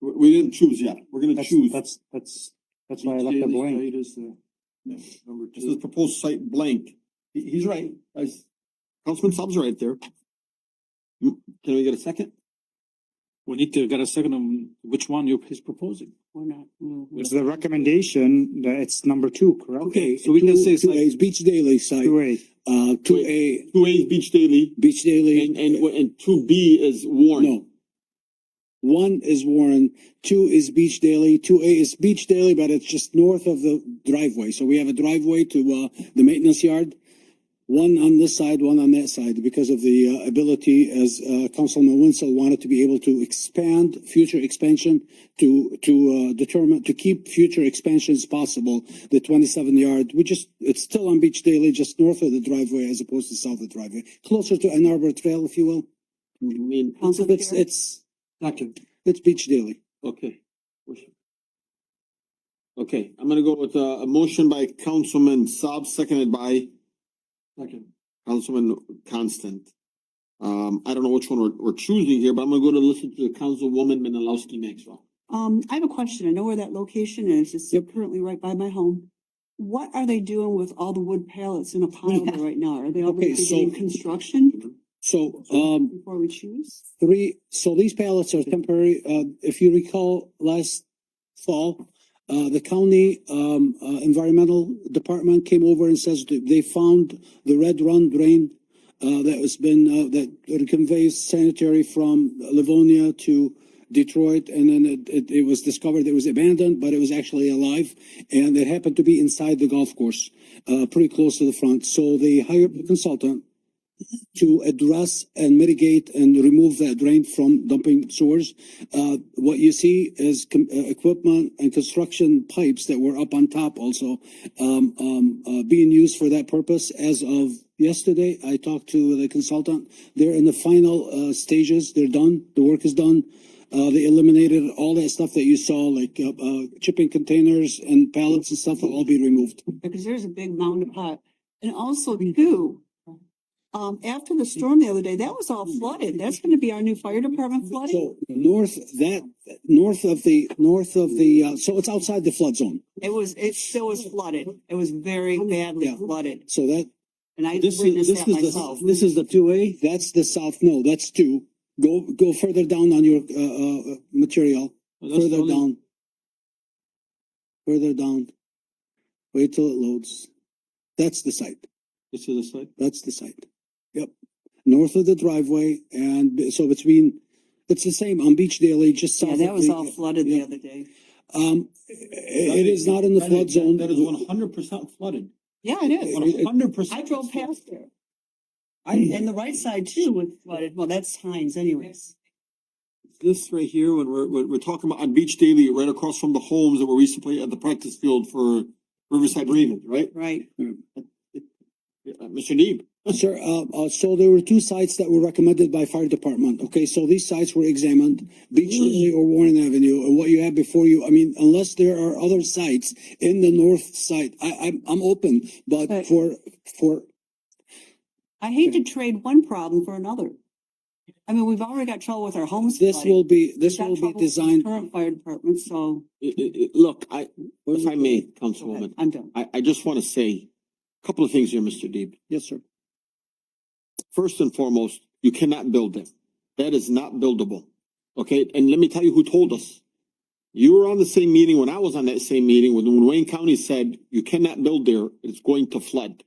We, we didn't choose yet. We're gonna That's, choose. that's, that's, that's why I left it blank. Number two. This is proposed site blank. He, he's right. I s- Councilman Saab's right there. You- Can we get a second? We need to get a second on which one you is proposing. We're not. It's the recommendation that it's number two, correct? Okay, so we can say it's Two A's, like, Beach Daily site, Two A. uh, two A, Two A is Beach Daily Beach and, Daily, and, and two B is Warren. no. One is Warren, two is Beach Daily, two A is Beach Daily, but it's just north of the driveway. So we have a driveway to, uh, the maintenance yard. One on this side, one on that side, because of the, uh, ability, as, uh, Councilman Wenzel wanted to be able to expand, future expansion, to, to, uh, determine, to keep future expansions possible, the twenty-seven yard, we just, it's still on Beach Daily, just north of the driveway as opposed to south of the driveway, closer to Ann Arbor Trail, if you will. I mean, Council It's, Chair? it's, it's Beach Daily. okay. Okay, I'm gonna go with uh, a, a motion by Councilman Saab, seconded by Councilman Constant. Um, I don't know which one we're, we're choosing here, but I'm gonna go to listen to Councilwoman Menalowski Maxwell. Um, I have a question. I know where that location is. It's Yep. currently right by my home. What are they doing with all the wood pallets in a pile there right now? Are they already Okay, so- beginning construction So, um, before we choose? three, so these pallets are temporary, uh, if you recall, last fall, uh, the county, um, uh, environmental department came over and says that they found the red run drain, uh, that has been, uh, that conveys sanitary from Livonia to Detroit, and then it, it, it was discovered it was abandoned, but it was actually alive, and it happened to be inside the golf course, uh, pretty close to the front, so they hired a consultant to address and mitigate and remove that drain from dumping sewers. Uh, what you see is com- uh, equipment and construction pipes that were up on top also, um, um, uh, being used for that purpose. As of yesterday, I talked to the consultant. They're in the final, uh, stages. They're done. The work is done. Uh, they eliminated all that stuff that you saw, like, uh, uh, chipping containers and pallets and stuff will all be removed. Because there's a big mound of pot. And also Mm. too, um, after the storm the other day, that was all flooded. That's gonna be our new fire department flooding. Mm. So north, that, north of the, north of the, uh, so it's outside the flood zone. It was, it still was flooded. It was very badly Yeah. flooded. So that, And I this is, witnessed this that is myself. the, this is the two A, that's the south, no, that's two. Go, go further down on your, uh, uh, material, further down. Further down. Wait till it loads. That's the site, This is a site. that's the site. Yep, north of the driveway and b- so between, it's the same on Beach Daily, just south Yeah, of. that was the- all flooded the yeah. other day. Um, i- it is not in the That flood is- zone. That is one hundred percent flooded. Yeah, it is. One hundred percent. I drove past there. I, and the right side too was flooded. Well, that's Heinz anyways. This right here, when we're, when we're talking about on Beach Daily, right across from the homes that were recently at the practice field for Riverside Ravens, right? Right. Yeah, uh, Mr. Neeb, Sir, uh, uh, so there were two sites that were recommended by fire department. Okay, so these sites were examined, Beach Mm-hmm. Lily or Warren Avenue, and what you have before you, I mean, unless there are other sites in the north side, I, I'm, I'm open, but But- for, for, I hate to trade one problem for another. I mean, we've already got trouble with our homes. this flooding. will be, this We've got will be trouble with designed. Current fire department, so i- i- i- look, I, if I may, Mm-hmm. Councilwoman, I'm done. I, I just wanna say a couple of things here, Mr. Deeb. Yes, sir. First and foremost, you cannot build them. That is not buildable. Okay, and let me tell you who told us. You were on the same meeting when I was on that same meeting when, when Wayne County said, you cannot build there, it's going to flood.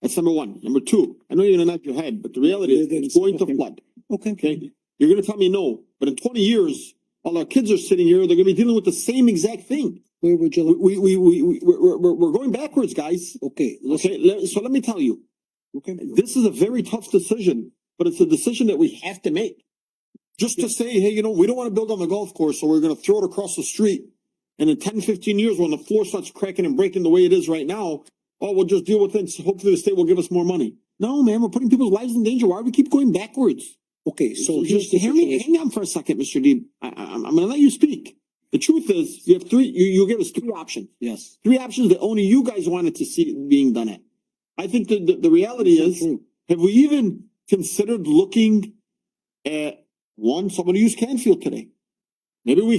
That's number one. Number two, I know you're gonna knock your head, but the reality is, They didn't it's going stop to him. flood. Okay. Okay, you're gonna tell me no, but in twenty years, while our kids are sitting here, they're gonna be dealing with the same exact thing. Where would you, like- We, we, we, we, we're, we're, we're going backwards, guys. okay, listen, Okay, let- so let me tell you, okay. this is a very tough decision, but it's a decision that we have to make. Just to say, hey, you know, we don't wanna build on the golf course, so we're gonna throw it across the street. And in 10, 15 years, when the floor starts cracking and breaking the way it is right now, oh, we'll just deal with it, so hopefully the state will give us more money. No, man, we're putting people's lives in danger. Why do we keep going backwards? Okay, so So here's just the hear me, situation. hang on for a second, Mr. Deeb. I, I, I'm I'm gonna let you speak. The truth is, you have three, you, you give us three options, Yes. three options that only you guys wanted to see being done at. I think the, the, the reality is, True. have we even considered looking at, one, someone who used Canfield today? Maybe we